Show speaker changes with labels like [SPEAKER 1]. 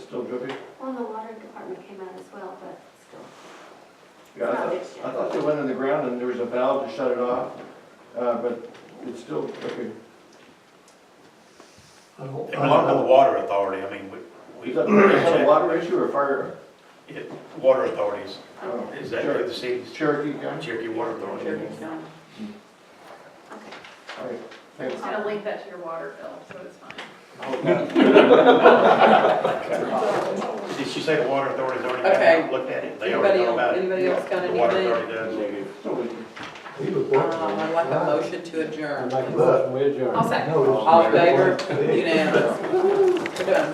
[SPEAKER 1] Cookie?
[SPEAKER 2] Well, and the water department came out as well, but still.
[SPEAKER 1] Yeah, I thought,
[SPEAKER 2] It's not fixed yet.
[SPEAKER 1] I thought they went in the ground and there was a valve to shut it off, uh, but it's still, okay.
[SPEAKER 3] I don't-
[SPEAKER 4] It
[SPEAKER 3] I
[SPEAKER 4] belonged to the
[SPEAKER 3] don't-
[SPEAKER 4] water authority, I mean, we, we.
[SPEAKER 1] Is that, is that a water issue or fire?
[SPEAKER 4] It- Water authorities,
[SPEAKER 1] Oh,
[SPEAKER 4] is that through the cities,
[SPEAKER 1] Cherokee County?
[SPEAKER 4] Cherokee Water Authority.
[SPEAKER 2] Okay.
[SPEAKER 1] All right, thanks.
[SPEAKER 5] Just gonna link that to your water bill, so it's fine.
[SPEAKER 4] Did she say the water authority's already
[SPEAKER 6] Okay.
[SPEAKER 4] looked at it? They already
[SPEAKER 6] Anybody
[SPEAKER 4] know
[SPEAKER 6] else-
[SPEAKER 4] about it.
[SPEAKER 6] anybody else got
[SPEAKER 4] The water
[SPEAKER 6] anything?
[SPEAKER 4] authority does.
[SPEAKER 1] So we can-
[SPEAKER 3] He was
[SPEAKER 6] Um,
[SPEAKER 3] working on
[SPEAKER 6] I'd
[SPEAKER 3] it.
[SPEAKER 6] like a motion to adjourn.
[SPEAKER 3] I'd like a motion, we adjourn.
[SPEAKER 5] I'll second.
[SPEAKER 3] No, it's-
[SPEAKER 6] All in favor? Unanimous. We're done.